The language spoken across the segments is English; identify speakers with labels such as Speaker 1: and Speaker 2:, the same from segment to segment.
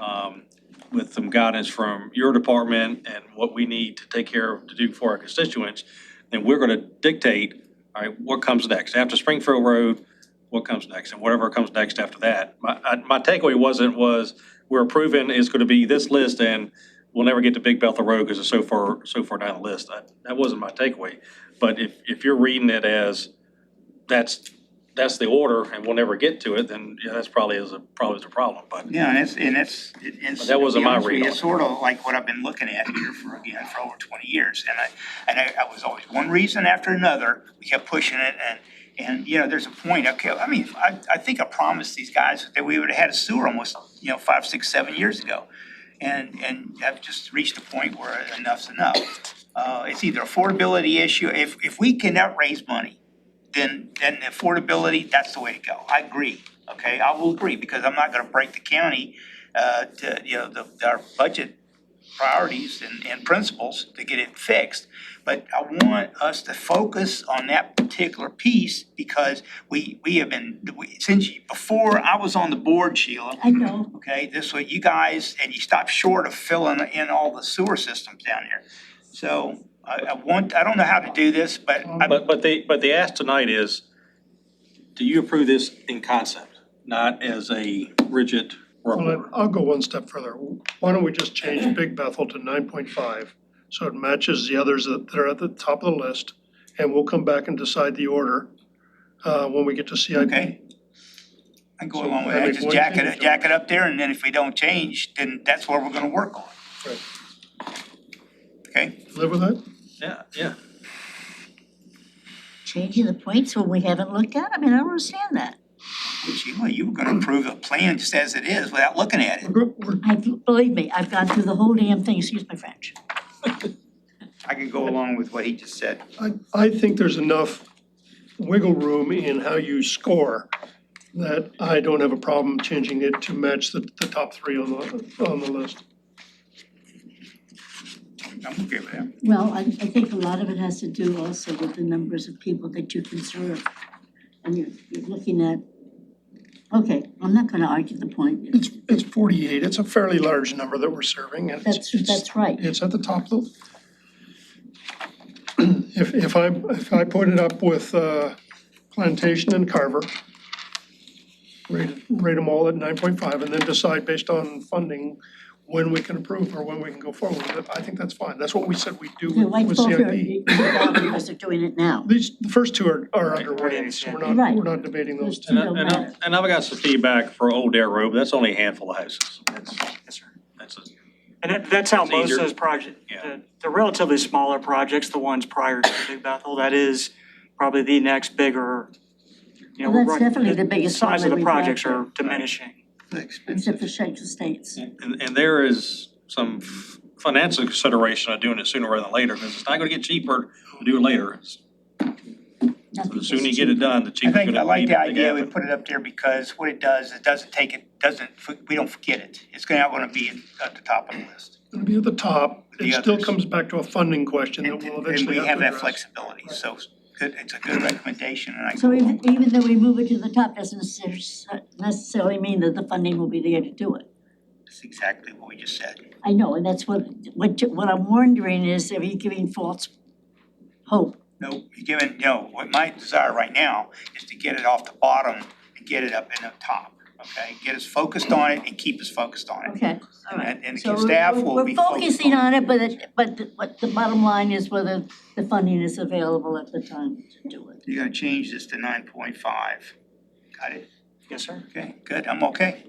Speaker 1: um, with some guidance from your department and what we need to take care of, to do for our constituents, then we're gonna dictate, all right, what comes next? After Springfield Road, what comes next? And whatever comes next after that. My, I- my takeaway wasn't, was we're approving is gonna be this list and we'll never get to Big Bethel Road because it's so far, so far down the list. I- That wasn't my takeaway. But if, if you're reading it as, that's, that's the order and we'll never get to it, then yeah, that's probably is a, probably is a problem, but.
Speaker 2: Yeah, and it's, and it's, it- it's.
Speaker 1: But that wasn't
Speaker 2: to be
Speaker 1: my
Speaker 2: honest with
Speaker 1: read
Speaker 2: you,
Speaker 1: on
Speaker 2: It's
Speaker 1: it.
Speaker 2: sort of like what I've been looking at here for, again, for over twenty years, and I, and I, I was always one reason after another, we kept pushing it, and, and, you know, there's a point, okay, I mean, I, I think I promised these guys that we would have had a sewer almost, you know, five, six, seven years ago. And, and I've just reached a point where enough's enough. Uh, it's either affordability issue, if, if we cannot raise money, then, then affordability, that's the way to go. I agree, okay? I will agree, because I'm not gonna break the county, uh, to, you know, the, our budget priorities and, and principles to get it fixed. But I want us to focus on that particular piece, because we, we have been, we, since, you- before I was on the board, Sheila,
Speaker 3: I know.
Speaker 2: okay, this way you guys, and you stop short of filling in all the sewer systems down here. So, I, I want, I don't know how to do this, but I,
Speaker 1: But, but the, but the ask tonight is, do you approve this in concept, not as a rigid
Speaker 4: Well,
Speaker 1: rubber?
Speaker 4: I- I'll go one step further. Why don't we just change Big Bethel to nine point five? So it matches the others that that are at the top of the list, and we'll come back and decide the order uh, when we get to CIP.
Speaker 2: Okay. I go along with
Speaker 4: So, I
Speaker 2: that,
Speaker 4: mean,
Speaker 2: just
Speaker 4: one
Speaker 2: jack
Speaker 4: change-
Speaker 2: it, jack it up there, and then if we don't change, then that's where we're gonna work on,
Speaker 4: Right.
Speaker 2: okay?
Speaker 4: Live with that?
Speaker 1: Yeah, yeah.
Speaker 3: Changing the points when we haven't looked at, I mean, I don't understand that.
Speaker 2: Well, Sheila, you were gonna approve the plan just as it is without looking at it.
Speaker 4: We're go- we're-
Speaker 3: I, believe me, I've gone through the whole damn thing, excuse my French.
Speaker 2: I can go along with what he just said.
Speaker 4: I, I think there's enough wiggle room in how you score that I don't have a problem changing it to match the, the top three on the, on the list.
Speaker 2: I'm okay with that.
Speaker 3: Well, I, I think a lot of it has to do also with the numbers of people that you can serve. And you're, you're looking at, okay, I'm not gonna argue the point,
Speaker 4: It's, it's forty-eight. It's a fairly large number that we're serving and it's,
Speaker 3: that's,
Speaker 4: it's,
Speaker 3: that's right.
Speaker 4: it's at the top of the. If, if I, if I put it up with, uh, Plantation and Carver, rate, rate them all at nine point five and then decide based on funding when we can approve or when we can go forward with it, I think that's fine. That's what we said we do
Speaker 3: Okay,
Speaker 4: with
Speaker 3: why
Speaker 4: with
Speaker 3: both are,
Speaker 4: CIP.
Speaker 3: you- you're down because they're doing it now.
Speaker 4: These, the first two are, are underway, so we're not,
Speaker 3: Right.
Speaker 4: we're not debating those two.
Speaker 1: And, I- and I- and I've got some feedback for Old Dare Road, but that's only a handful of houses. That's,
Speaker 5: Yes, sir.
Speaker 1: that's, a-
Speaker 5: And that, that's how
Speaker 1: It's
Speaker 5: most
Speaker 1: easier.
Speaker 5: of those projects,
Speaker 1: Yeah.
Speaker 5: the, the relatively smaller projects, the ones prior to Big Bethel, that is probably the next bigger, you know,
Speaker 3: Well,
Speaker 5: we're
Speaker 3: that's
Speaker 5: running-
Speaker 3: definitely the biggest one
Speaker 5: Size
Speaker 3: that
Speaker 5: of the
Speaker 3: we've got
Speaker 5: projects
Speaker 3: there.
Speaker 5: are diminishing.
Speaker 3: Except for Shaker States.
Speaker 1: and, and there is some f- financial consideration of doing it sooner rather than later, because it's not gonna get cheaper to do it later. So the sooner you get it done, the
Speaker 2: I
Speaker 1: cheaper it's
Speaker 2: think, I
Speaker 1: gonna be.
Speaker 2: like
Speaker 1: to
Speaker 2: the
Speaker 1: make it
Speaker 2: idea we
Speaker 1: happen.
Speaker 2: put it up there because what it does, it doesn't take it, doesn't, we don't forget it. It's gonna, not gonna be at the top of the list.
Speaker 4: It'll be at the top.
Speaker 2: The
Speaker 4: It still
Speaker 2: others.
Speaker 4: comes back to a funding question that
Speaker 2: And
Speaker 4: we'll
Speaker 2: and
Speaker 4: eventually
Speaker 2: we
Speaker 4: have
Speaker 2: have
Speaker 4: to
Speaker 2: that
Speaker 4: address.
Speaker 2: flexibility, so good- it's a good recommendation, and I go
Speaker 3: So
Speaker 2: along
Speaker 3: even,
Speaker 2: with it.
Speaker 3: even though we move it to the top, doesn't necessar- necessarily mean that the funding will be there to do it.
Speaker 2: That's exactly what we just said.
Speaker 3: I know, and that's what, what, you- what I'm wondering is, are you giving false hope?
Speaker 2: No, you're given, no, what my desire right now is to get it off the bottom and get it up in the top, okay? Get us focused on it and keep us focused on it.
Speaker 3: Okay, all right.
Speaker 2: And- and the
Speaker 3: So
Speaker 2: staff
Speaker 3: we're-
Speaker 2: will
Speaker 3: we're-
Speaker 2: be
Speaker 3: We're
Speaker 2: focused
Speaker 3: focusing
Speaker 2: on
Speaker 3: on it, but it, but the, but the bottom line is whether the funding is available at the time to do it.
Speaker 2: You're gonna change this to nine point five. Got it?
Speaker 5: Yes, sir.
Speaker 2: Okay, good, I'm okay.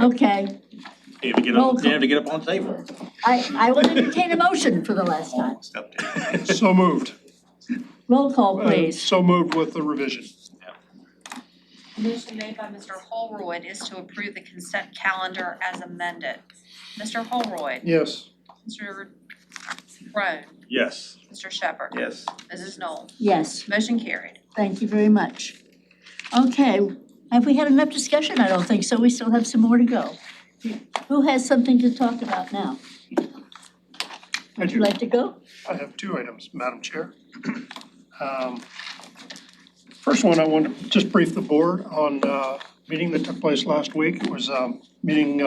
Speaker 3: Okay,
Speaker 1: You have to get
Speaker 3: Roll
Speaker 1: up,
Speaker 3: call.
Speaker 1: you have to get up on the table.
Speaker 3: I, I will entertain a motion for the last time.
Speaker 2: Almost up there.
Speaker 4: So moved.
Speaker 3: Roll call,
Speaker 4: Uh,
Speaker 3: please.
Speaker 4: So moved with the revision.
Speaker 6: Motion made by Mr. Holroyd is to approve the consent calendar as amended. Mr. Holroyd,
Speaker 4: Yes.
Speaker 6: Mr. Roan,
Speaker 1: Yes.
Speaker 6: Mr. Shepherd,
Speaker 2: Yes.
Speaker 6: Mrs. Knoll.
Speaker 3: Yes,
Speaker 6: Motion carried.
Speaker 3: thank you very much. Okay, have we had enough discussion? I don't think so. We still have some more to go. Who has something to talk about now?
Speaker 4: I
Speaker 3: Would you
Speaker 4: do.
Speaker 3: like to go?
Speaker 4: I have two items, Madam Chair. Um, First uh, one, I want to just brief the board on a meeting that took place last week. It was a meeting